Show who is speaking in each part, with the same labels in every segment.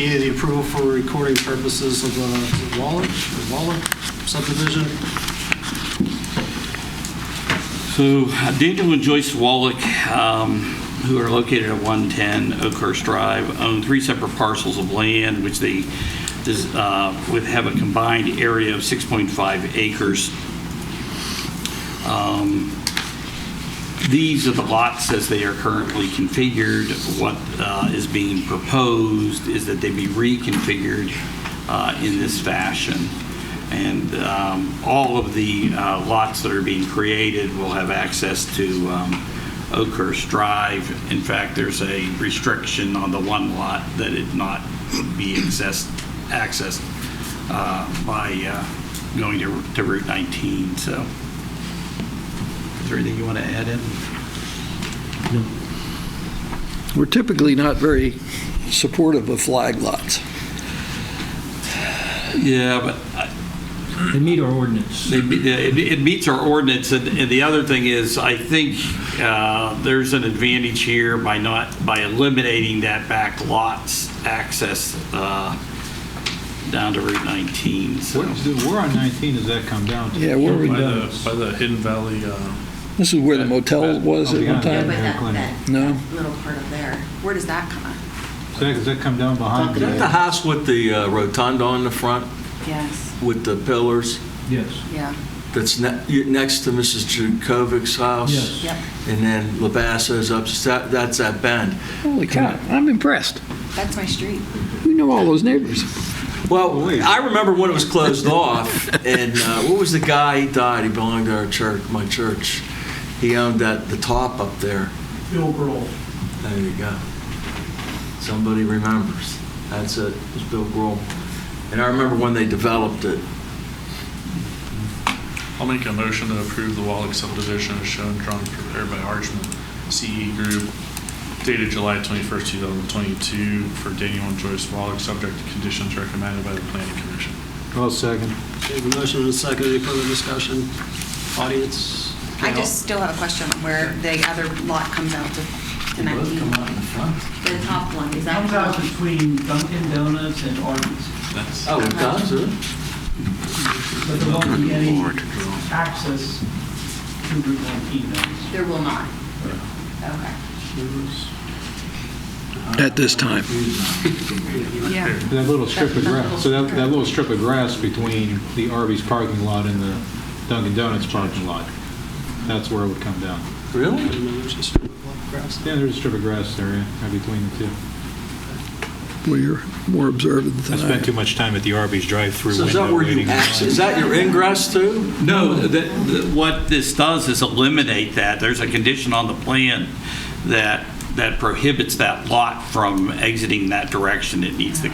Speaker 1: Need the approval for recording purposes of the Waller, Waller subdivision.
Speaker 2: So Daniel and Joyce Wallach, um, who are located at 110 Oakhurst Drive, own three separate parcels of land, which they, does, uh, would have a combined area of 6.5 acres. Um, These are the lots as they are currently configured. What uh, is being proposed is that they be reconfigured uh, in this fashion. And um, all of the uh, lots that are being created will have access to um, Oakhurst Drive. In fact, there's a restriction on the one lot that it not be accessed, accessed uh, by uh, going to to Route 19, so. Is there anything you want to add in?
Speaker 3: We're typically not very supportive of flag lots.
Speaker 2: Yeah, but
Speaker 4: They meet our ordinance.
Speaker 2: It me- It it meets our ordinance, and and the other thing is, I think uh, there's an advantage here by not, by eliminating that back lots access uh, down to Route 19, so.
Speaker 5: Where's the- Where on 19 does that come down to? uh,
Speaker 3: Yeah, where we,
Speaker 6: By the, by the Hidden Valley, uh,
Speaker 3: this is where the motel was at one
Speaker 5: Yeah,
Speaker 7: Yeah,
Speaker 3: time?
Speaker 7: but
Speaker 5: hair
Speaker 7: that,
Speaker 5: clinic.
Speaker 7: that
Speaker 3: No?
Speaker 7: little part of there, where does that come out?
Speaker 5: Does that- Does that come down behind?
Speaker 7: Is
Speaker 8: Is that the house with the uh, rotunda on the front
Speaker 7: Yes,
Speaker 8: with the pillars
Speaker 4: Yes.
Speaker 7: yeah,
Speaker 8: that's ne- next to Mrs. Jankovic's house?
Speaker 4: Yes.
Speaker 7: yep,
Speaker 8: And then Labasso's up, that- that's that bend.
Speaker 3: Holy cow, I'm impressed.
Speaker 7: that's my street.
Speaker 3: We know all those neighbors.
Speaker 4: Oh,
Speaker 8: Well, I remember when it was closed off, and uh, what was the guy, he died, he belonged to our church, my church. He owned that, the top up there.
Speaker 4: Bill Grohl.
Speaker 8: There you go. Somebody remembers. That's it, it was Bill Grohl. And I remember when they developed it,
Speaker 6: I'll make a motion to approve the Wallach subdivision as shown, drawn, and prepared by Archman CE Group, dated July 21st, 2022, for Daniel and Joyce Wallach, subject to conditions recommended by the planning commission.
Speaker 5: Well, second.
Speaker 1: Okay, the motion and a second, any further discussion? Audience?
Speaker 7: I just still have a question on where the other lot comes out to, to 19. The top one, is
Speaker 9: It
Speaker 7: that?
Speaker 9: comes out between Dunkin' Donuts and Arby's,
Speaker 8: oh, it does, it?
Speaker 9: but there won't be any access to Route 19 those.
Speaker 7: There will not. Okay.
Speaker 3: At this time.
Speaker 7: Yeah.
Speaker 5: That little strip of
Speaker 7: That- that
Speaker 5: grass, so that, that little strip of grass between the Arby's parking lot and the Dunkin' Donuts parking lot, that's where it would come down.
Speaker 8: Really?
Speaker 1: I don't know, it's just grass.
Speaker 5: Yeah, there's a strip of grass there, yeah, right between the two.
Speaker 3: We're more observant
Speaker 5: I
Speaker 3: than I.
Speaker 5: spent too much time at the Arby's drive-through
Speaker 8: So
Speaker 5: window
Speaker 8: is that where you
Speaker 5: waiting in
Speaker 8: access,
Speaker 5: line.
Speaker 8: is that your ingress to?
Speaker 2: No, that, that- what this does is eliminate that. There's a condition on the plan that, that prohibits that lot from exiting that direction. It needs to,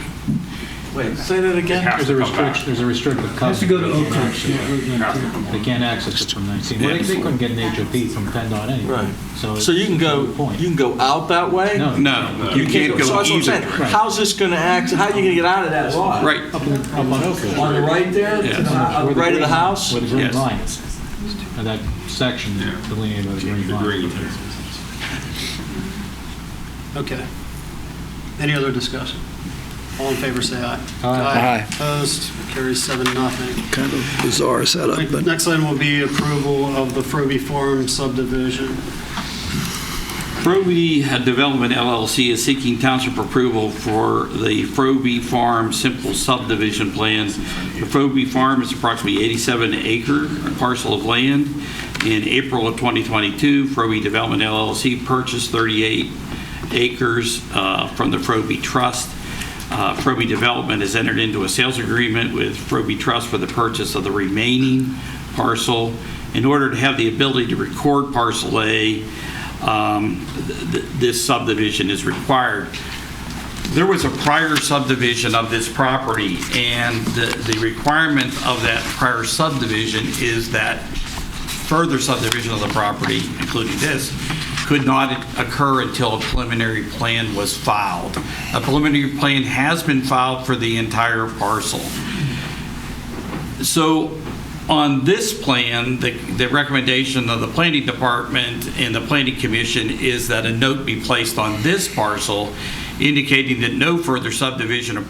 Speaker 8: Wait, say that again?
Speaker 5: There's a restriction, there's a restrictive
Speaker 4: Has to go to
Speaker 5: covenant.
Speaker 4: Oak Ridge, yeah, Route 19.
Speaker 5: They can't access it from 19. Well, they- They couldn't get an HOP from PennDOT anyway.
Speaker 8: Right. So you can go,
Speaker 5: Point.
Speaker 8: you can go out that way?
Speaker 5: No.
Speaker 2: no, you can't
Speaker 8: So
Speaker 2: go
Speaker 8: that's what I'm
Speaker 2: either.
Speaker 8: saying.
Speaker 2: direction.
Speaker 8: How's this going to act, how are you going to get out of that lot?
Speaker 2: Right,
Speaker 5: Up in- up on Oak Ridge.
Speaker 8: On the right there, to the-
Speaker 2: Yeah.
Speaker 8: on the right of the house?
Speaker 5: Where the green
Speaker 2: Yes.
Speaker 5: line is. Now, That section delineated by the green line.
Speaker 1: Okay. Any other discussion? All in favor, say aye.
Speaker 5: Aye.
Speaker 3: Aye.
Speaker 1: Opposed, carries seven, nothing.
Speaker 3: Kind of bizarre setup, but
Speaker 1: Next item will be approval of the Frobe Farm subdivision.
Speaker 2: Frobe Development LLC is seeking township approval for the Frobe Farm simple subdivision plans. The Frobe Farm is approximately 87 acre parcel of land. In April of 2022, Frobe Development LLC purchased 38 acres uh, from the Frobe Trust. Uh, Frobe Development has entered into a sales agreement with Frobe Trust for the purchase of the remaining parcel. In order to have the ability to record parcel A, um, th- th- this subdivision is required. There was a prior subdivision of this property, and the the requirement of that prior subdivision is that further subdivision of the property, including this, could not occur until a preliminary plan was filed. A preliminary plan has been filed for the entire parcel. So on this plan, the, the recommendation of the planning department and the planning commission is that a note be placed on this parcel indicating that no further subdivision or